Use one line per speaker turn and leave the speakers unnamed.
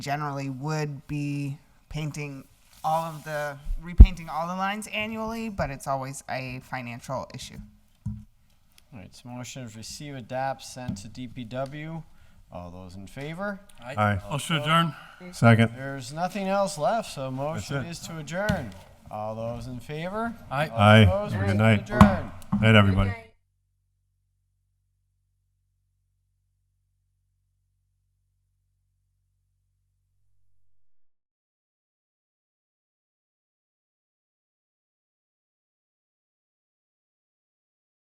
generally would be painting all of the, repainting all the lines annually, but it's always a financial issue.
All right, so motion is receive, adapt, send to DPW. All those in favor?
Aye.
Motion adjourn.
Second.
There's nothing else left, so motion
it.
is to adjourn. All those in favor?
Aye.
All
Aye.
opposed?
Have a
We
good night.
Adjourn.
Night, everybody.
Right.